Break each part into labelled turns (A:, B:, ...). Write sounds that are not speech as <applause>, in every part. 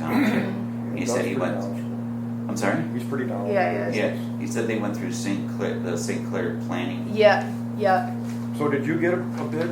A: Mm-hmm. township. He
B: That
A: said
B: was
A: he
B: pretty
A: went,
B: knowledgeable.
A: I'm sorry?
B: He's pretty knowledgeable.
C: Yeah, he
A: Yeah, he said they went through St. Clair, the St. Clair planning.
C: Yeah, yeah.
B: So did you get a a bid?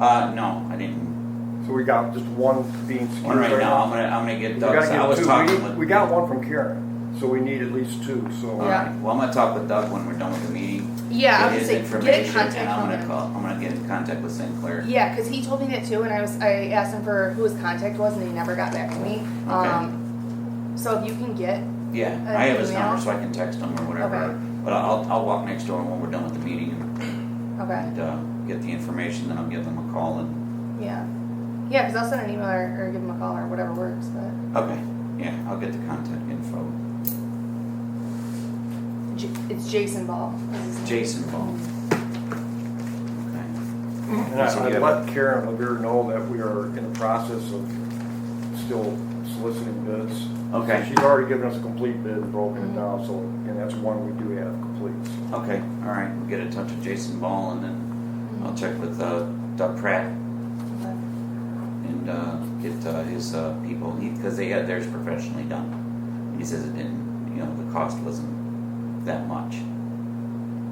A: Uh, no, I didn't,
B: So we got just one being skewed
A: one
B: right
A: right now,
B: now.
A: I'm gonna, I'm gonna get
B: We
A: Doug's,
B: gotta
A: I was
B: get
A: talking
B: two,
A: with.
B: we, we got one from Karen, so we need at least two,
A: All
B: so.
C: Yeah.
A: right. Well, I'm gonna talk with Doug when we're done with the meeting.
C: Yeah,
A: Get
C: I would
A: his
C: say get in
A: information,
C: contact
A: And I'm
C: on
A: gonna
C: him.
A: call, I'm gonna get in contact with St. Clair.
C: Yeah, because he told me that too, and I was I asked him for who his contact was, and he never got back to me. Um, so if you can get
A: Yeah,
C: Uh,
A: I have his
C: email?
A: number, so I can text him or whatever,
C: Okay.
A: but I'll, I'll walk next door when we're done with the meeting
C: okay,
A: and, uh, get the information, then I'll give them a call and,
C: yeah, yeah, because I'll send an email or, or give him a call or whatever works. But
A: okay, yeah, I'll get the contact info.
C: J- it's Jason Ball. is his name.
A: Jason Ball. Okay.
C: Mm-hmm.
B: And
A: So
B: I,
A: you
B: I
A: have-
B: let Karen Levere know that we are in the process of still soliciting bids.
A: Okay.
B: So She's already given us a complete bid and broken
C: Mm-hmm.
B: it down, so, and that's one we do have complete.
A: Okay, all right, we'll get in touch with Jason Ball and then I'll check with uh, Doug Pratt
C: Okay.
A: and uh, get uh, his uh, people, because they had theirs professionally done. And he says it didn't, you know, the cost wasn't that much.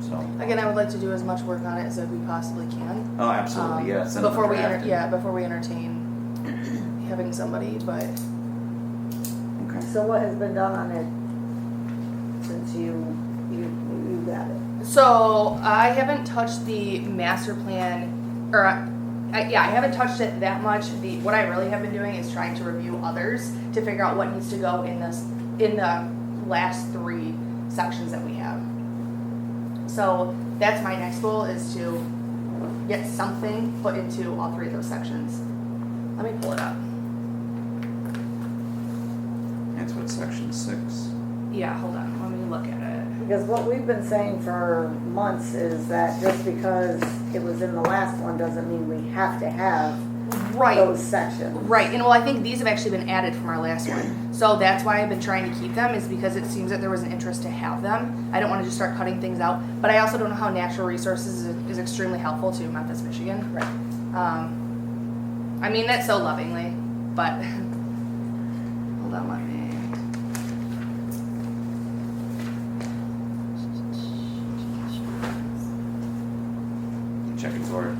A: So,
C: Again, I would like to do as much work on it as we possibly can.
A: oh,
C: um,
A: absolutely, yeah. send him a
C: Before we,
A: draft
C: enter
A: and-
C: yeah, before we entertain <clears throat> having somebody, but
A: Okay,
D: So what has been done on it since you, you, you got it?
C: So I haven't touched the master plan, or I, yeah, I haven't touched it that much. The what I really have been doing is trying to review others to figure out what needs to go in this in the last three sections that we have. So that's my next goal is to get something put into all three of those sections. Let me pull it up.
A: that's what section six.
C: Yeah, hold on. Let me look at it.
D: Because what we've been saying for months is that just because it was in the last one doesn't mean we have to have
C: Right.
D: those sections.
C: Right, and well, I think these have actually been added from our last one. So that's why I've been trying to keep them, is because it seems that there was an interest to have them. I don't want to just start cutting things out, but I also don't know how natural resources is, is extremely helpful to Memphis, Michigan. Right. Um, I mean that so lovingly, but <laughs> hold on, let me.
A: Checking for it.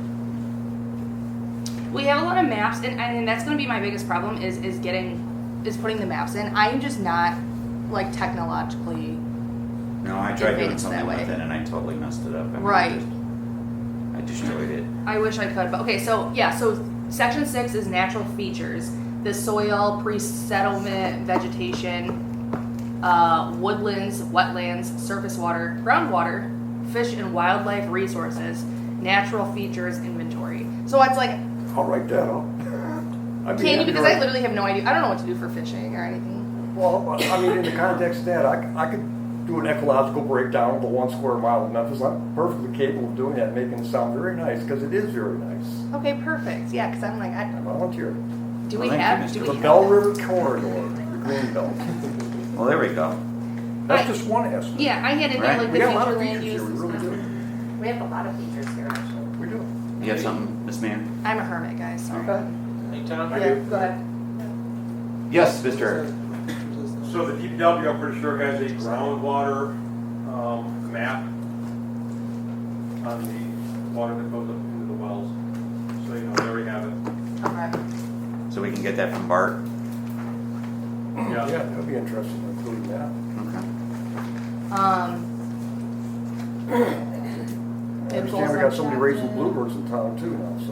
C: We have a lot of maps, and I mean that's going to be my biggest problem is is getting is putting the maps in. I am just not like technologically.
A: No, I tried doing
C: Advanced
A: something
C: that
A: with
C: way.
A: it and I totally messed it up. I mean, I
C: Right.
A: just- I destroyed it.
C: I wish I could, but okay, so yeah, so section six is natural features. The soil, pre-settlement vegetation, uh, woodlands, wetlands, surface water, groundwater, fish and wildlife resources, natural features inventory. So it's like,
B: I'll write that up. I mean,
C: can you, because I
B: you're-
C: literally have no idea, I don't know what to do for fishing or anything.
B: Well, I mean, in the context of that, I, c- I could do an ecological breakdown of the one square mile of Memphis. I'm perfectly capable of doing that, making it sound very nice, because it is very nice.
C: Okay, perfect, yeah, cause I'm like,
B: I
C: I,
B: volunteer.
C: do
A: Well,
C: we
A: thank you,
C: have,
A: Mr.
C: do we
B: The
C: have?
B: Bell
C: this?
B: River Corridor, the green belt.
A: Well, there we go.
B: That's just one aspect.
C: Yeah, I had it
A: Right.
C: like the
B: We got a lot of
C: future land
B: features here,
C: use.
B: we really do.
D: We have a lot of features here actually.
B: We do.
A: You have something, Miss Mayor?
C: I'm a hermit, guys, sorry.
E: Hey, Tom?
D: Yeah, go ahead.
A: Yes, Mr.
F: So the DPW, I'm pretty sure, has a groundwater um, map on the water that goes up into the wells. So, you know, there we have it.
C: Okay.
A: So we can get that from Bart?
B: Yeah,
F: Yeah.
B: that'd be interesting, including that.
A: Okay.
C: Um.
B: I understand we got somebody raising bluebirds in town too now, so.
D: <laughs>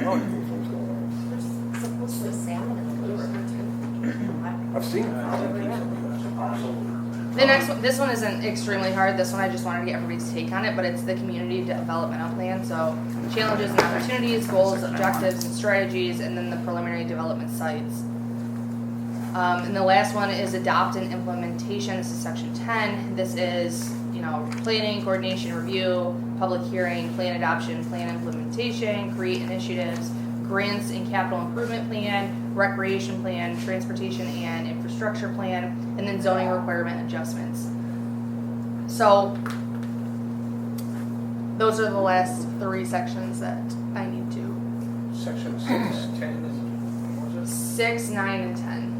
B: I don't know what's going on.
G: There's supposedly salmon in the Blue River too.
B: I've seen it.
C: The next one, this one isn't extremely hard. This one I just wanted to get everybody's take on it, but it's the community developmental plan. So challenges and opportunities, goals, objectives, and strategies, and then the preliminary development sites. Um, and the last one is adopt and implementation. This is section ten. This is you know planning, coordination, review, public hearing, plan adoption, plan implementation, create initiatives, grants and capital improvement plan, recreation plan, transportation and infrastructure plan, and then zoning requirement adjustments. So those are the last three sections that I need to
E: Section six, ten, is- what was
C: six, nine, and ten.